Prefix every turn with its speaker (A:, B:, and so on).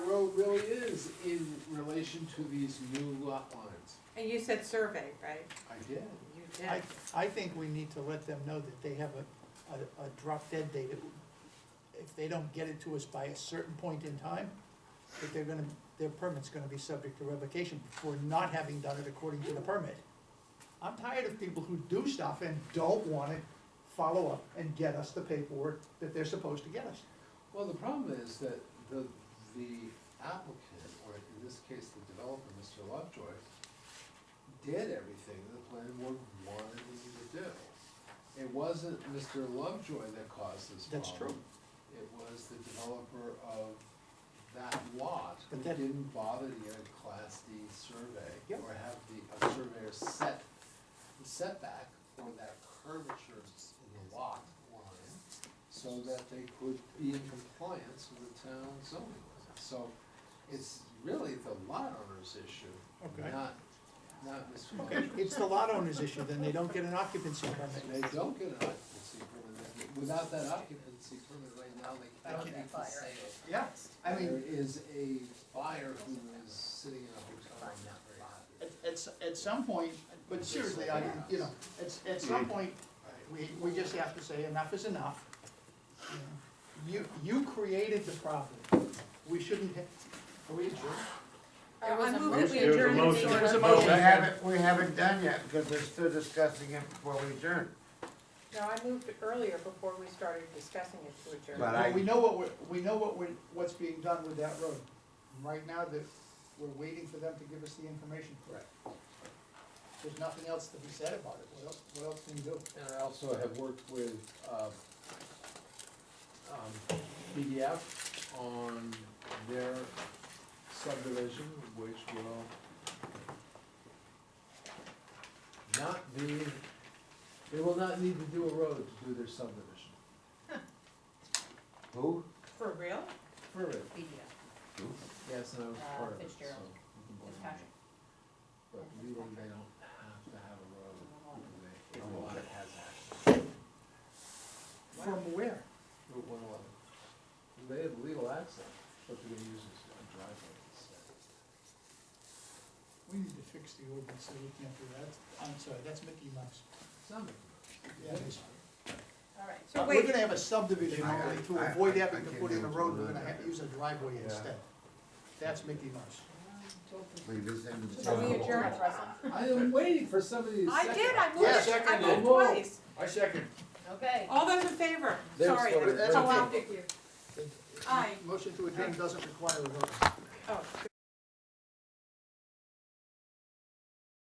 A: is in relation to these new lot lines.
B: And you said survey, right?
A: I did.
B: You
C: I,
B: did.
C: I think we need to let them know that they have a, a, a drop dead date. If they don't get it to us by a certain point in time, that they're gonna, their permit's gonna be subject to revocation for not having done it according to the permit. I'm tired of people who do stuff and don't wanna follow up and get us the paperwork that they're supposed to get us.
A: Well, the problem is that the, the applicant, or in this case, the developer, Mr. Lovejoy, did everything the planning board wanted him to do. It wasn't Mr. Lovejoy that caused this problem.
C: That's
A: It was the developer of that lot who
C: But that-
A: didn't bother to get a class D survey.
C: Yep.
A: Or have the, a surveyor set the setback or that curvature in the lot line so that they could be in compliance with the town zoning laws. So it's really the lot owner's issue,
C: Okay.
A: not, not Mr.
C: Okay,
A: Lovejoy.
C: it's the lot owner's issue, then they don't get an occupancy permit.
A: They don't get an occupancy permit, They- without that occupancy permit right now, they
D: That
A: can't
D: would
A: even
D: be fire.
A: say it.
C: Yeah,
D: I
A: There
D: mean,
A: is a buyer who is sitting in a hotel and not very happy.
D: at, at, s- at some point,
C: but seriously, I, you know, at, at some point, We, we just have to say enough is enough. You, you created the problem. We shouldn't, ha- are we adjourned?
B: Uh, I move that we
E: There was a
B: adjourn the
E: motion.
B: meeting.
E: There was a
C: Well,
F: We
C: motion.
F: haven't, we haven't done yet, because we're still discussing it before we adjourn.
B: No, I moved earlier before we started discussing it to adjourn.
F: But
C: But we
F: I,
C: know what we're, we know what we're, what's being done with that road. Right now, that, we're waiting for them to give us the information. Correct. There's nothing else to be said about it. What else, what else can you do?
A: And I also have worked with, uh, um, BDF on their subdivision, which will not be, they will not need to do a road to do their subdivision.
F: who?
B: For real?
A: For real?
D: media,
A: Yes, and I was
D: Uh,
A: part of it, so.
D: Fitzgerald.
A: you can blame me.
D: Fitzpatrick.
A: But legally, they don't have to have a road, they, if a lot has access.
C: From where?
A: Route one eleven. They have legal access, but they're gonna use this as a driveway instead.
C: We need to fix the ordinance, so we can't do that. I'm sorry, that's Mickey Mouse.
A: It's not making much.
C: Yeah, it is.
D: all right.
B: So
C: Uh, We're
B: wait,
C: gonna have a subdivision
F: I-
C: only to
F: I-
C: avoid
F: I-
C: having
F: I
C: to
F: can't
C: put in a
F: do it.
C: road, we're gonna have to use a driveway
F: Yeah.
C: instead. That's Mickey Mouse.
F: Leave this in the.
B: are we
F: channel.
B: adjourned, Russell?
A: I am waiting for somebody to
B: I
A: second.
B: did, I
E: Yeah,
B: moved, I
E: seconded.
B: moved
A: Whoa.
B: twice.
E: I second.
D: Okay.
B: All those in favor?
A: There's
B: Sorry,
A: sort of-
B: that's how I'll pick you.
C: It- it-
B: Aye.
C: Motion to adjourn doesn't require a vote.
B: oh.